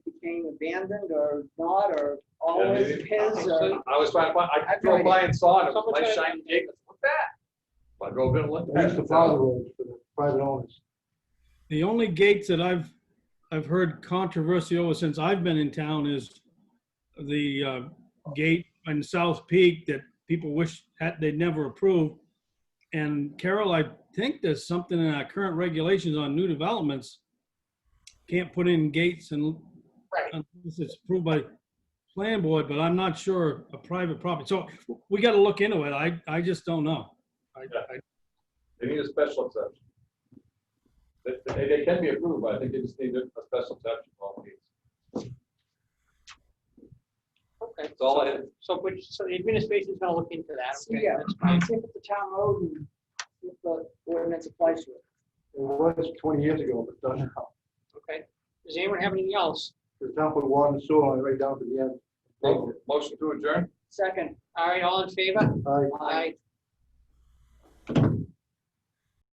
being abandoned or not, or Yeah, always maybe. his, or, I was trying to find, I I've drove tried by and saw it, it was Someone like tried- shiny cake, what's that? I drove in and looked. They used to plow the roads for the private owners. The only gates that I've, I've heard controversy over since I've been in town is the uh, gate on South Peak that people wish had, they'd never approved. And Carol, I think there's something in our current regulations on new developments. Can't put in gates and Right. unless it's approved by planning board, but I'm not sure a private property. So we got to look into it. I, I just don't know. I- Yeah. I- They need a special exception. They, they- they can be approved, but I think they just need a a special exception for all these. Okay, That's all I had. so which, so the administration's gonna look into that. okay, Yeah. that's I fine. think it's a town road and if the ordinance applies to it. It was twenty years ago, but done now. Okay. Does anyone have anything else? The town put water and sewer on it right down to the end. Mo- Motion to adjourn? Second, All right, all in favor? I Aye.